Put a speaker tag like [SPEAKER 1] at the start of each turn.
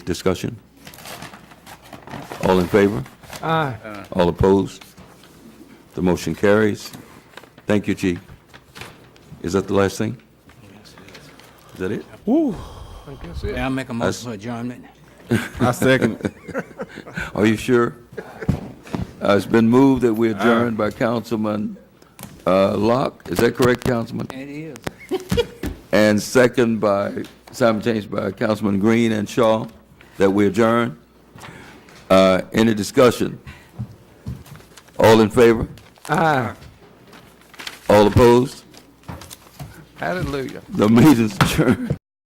[SPEAKER 1] Discussion? All in favor? Aye. All opposed? The motion carries. Thank you, Chief. Is that the last thing? Is that it?
[SPEAKER 2] May I make a
[SPEAKER 1] That's-
[SPEAKER 2] motion for adjournment?
[SPEAKER 3] I second it.
[SPEAKER 1] Are you sure? Uh, It's been moved that we adjourned by Councilman uh, Locke. Is that correct, Councilman?
[SPEAKER 2] It is.
[SPEAKER 1] And second by, simultaneous by Councilman Green and Shaw, that we adjourn. Uh, Any discussion? All in favor? Aye. All opposed?
[SPEAKER 3] Hallelujah.
[SPEAKER 1] The meeting's adjourned.